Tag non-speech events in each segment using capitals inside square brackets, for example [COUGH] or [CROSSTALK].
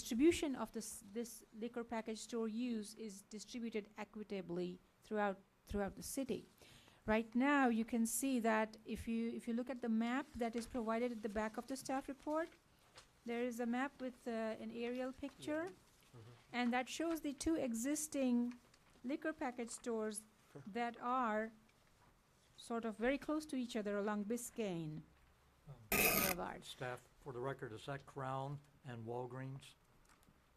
distribution of this, this liquor package store use is distributed equitably throughout, throughout the city. Right now, you can see that if you, if you look at the map that is provided at the back of the staff report, there is a map with uh, an aerial picture, and that shows the two existing liquor package stores that are sort of very close to each other along Biscayne Boulevard. Staff, for the record, is that Crown and Walgreens?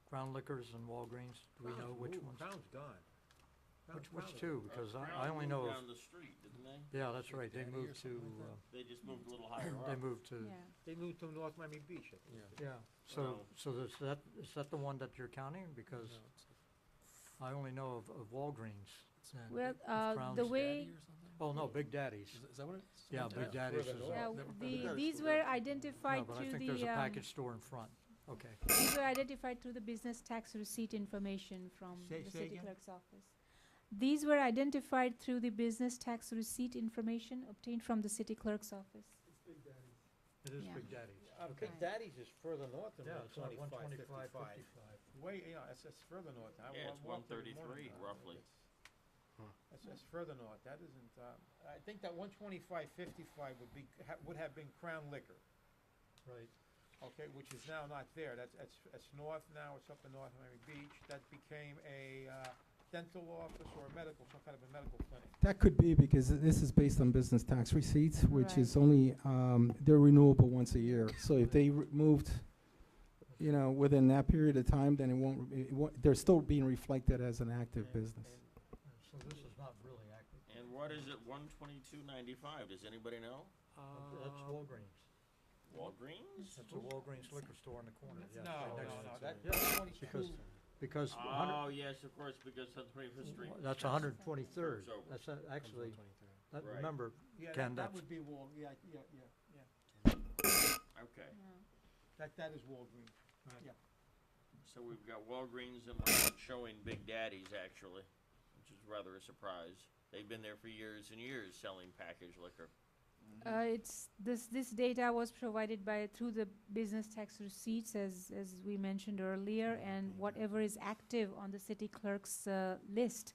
Crown Liquors and Walgreens, do we know which ones? Crown's gone. Which, which two? Because I, I only know of, Uh, Down the street, didn't they? yeah, that's right, they Daddy or moved to, something like uh, They just moved a little higher they up. moved to, Yeah, They moved to North Miami Beach, I think. yeah. So, No. so is that, is that the one that you're counting? Because No, it's- I only know of, of Walgreens. and- well, It's uh, Crown's the Daddy way, Oh, no, Big Daddy's. Is that what it is? Yeah, Big Yeah. Daddy's is, Further yeah, no, north. the, Never- these were identified but I through think there's a the, um, package store in front. Okay. these were identified through the business tax receipt information from Say- the say city again? clerk's office. These were identified through the business tax receipt information obtained from the city clerk's office. It is Yeah. Big Daddy's. Uh, Big Okay. Daddy's is further north than Yeah, one it's like one twenty-five, twenty-five, fifty-five. fifty-five. Way, you know, it's, it's further north. I wa- Yeah, it's walked there in the 133 morning. roughly. That's- That's, that's further north, that isn't, um, I think that one twenty-five, fifty-five would be, ha- would have been Crown Liquor, Right. okay, which is now not there, that's, that's, that's north now, it's up in North Miami Beach. That became a, uh, dental office or a medical, some kind of a medical clinic. That could be because this is based on business tax receipts, which Right. is only, um, they're renewable once a year. So if they re- moved, you know, within that period of time, then it won't, it won't, they're still being reflected as an active And- business. and So this is not really active. And what is it, one twenty-two ninety-five, does anybody know? That's Walgreens. Uh, Walgreens? That's a Walgreens liquor store in the corner. yeah, No, right no, next- no, that, yeah, that's twenty-two. Because, because a hundred- Oh, yes, of course, because that's twenty-fifth street. that's hundred and twenty-third. It's over. That's a- actually, that- Right. remember, Yeah, that- Ken, that that's- would be Wal, yeah, yeah, yeah, yeah. Okay, Mm-hmm. That, that is Walgreens. so we've got Walgreens and we're not showing Big Daddy's actually, which is rather a surprise. They've been there for years and years selling packaged liquor. Oh, Uh, it's, this, this data was provided by, through the business tax receipts, as, as we mentioned earlier, Mm-hmm. and whatever is active on the city clerk's, uh, list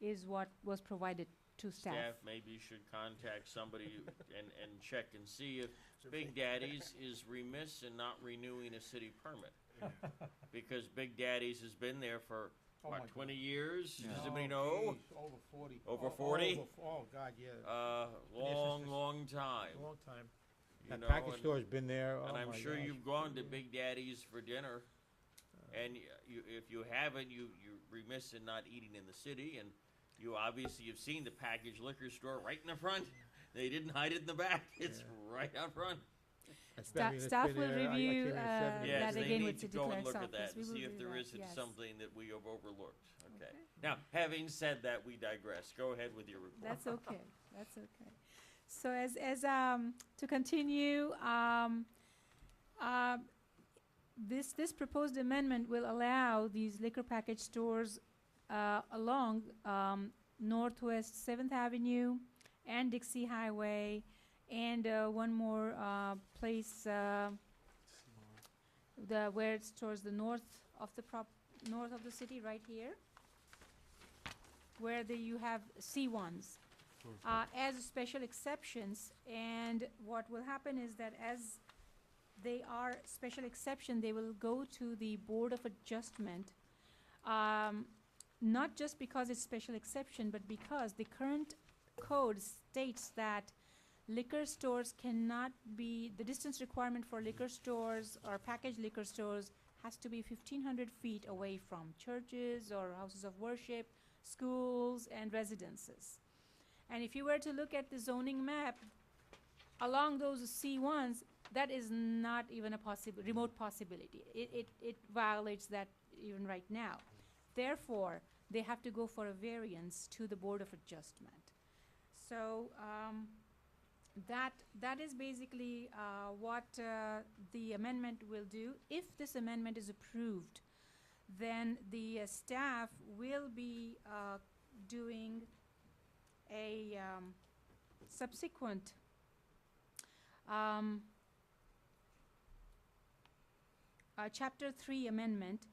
is what was provided to staff. Staff maybe should contact somebody and, and check and see if Big Daddy's is remiss in not renewing a city permit. Because Big Daddy's has been there for, Oh Uh, my what, God. twenty years? Does anybody Oh, know? geez, Over forty. Over Oh, 40? over f- Oh, God, yeah, Uh, long, long time, long time. you That know, package and- store's been there, oh And my I'm sure gosh. Uh. you've gone to Big Daddy's for dinner. And y- you, if you haven't, you, you're remiss in not eating in the city, and you obviously have seen the packaged liquor store right in the front. They didn't hide it in the back, [LAUGHS] it's right out front. It's been- I Staff, mean, it's staff been will there, I- I came review, in uh, at 7 Yeah, Yes, that they again need with to city go and clerk's look at that office. and We see will if do there that, isn't yes. something that we have overlooked, okay? Now, having said that, we digress, go ahead with your report. That's okay, that's okay. So as, as, um, to continue, um, uh, this, this proposed amendment will allow these liquor package stores, uh, along, um, Northwest Seventh Avenue and Dixie Highway, and, uh, one more, uh, place, uh, the, where it's towards the north of the prop, north of the city, right here, where the, you have C ones, uh, as special exceptions, and what will happen is that as they are special exception, they will go to the Board of Adjustment, um, not just because it's special exception, but because the current code states that liquor stores cannot be, the distance requirement for liquor stores or packaged liquor stores has to be fifteen hundred feet away from churches or houses of worship, schools and residences. And if you were to look at the zoning map, along those C ones, that is not even a possible, remote possibility. It, it, it violates that even right now. Therefore, they have to go for a variance to the Board of Adjustment. So, um, that, that is basically, uh, what, uh, the amendment will do. If this amendment is approved, then the uh, staff will be, uh, doing a, um, subsequent, um, uh, Chapter Three amendment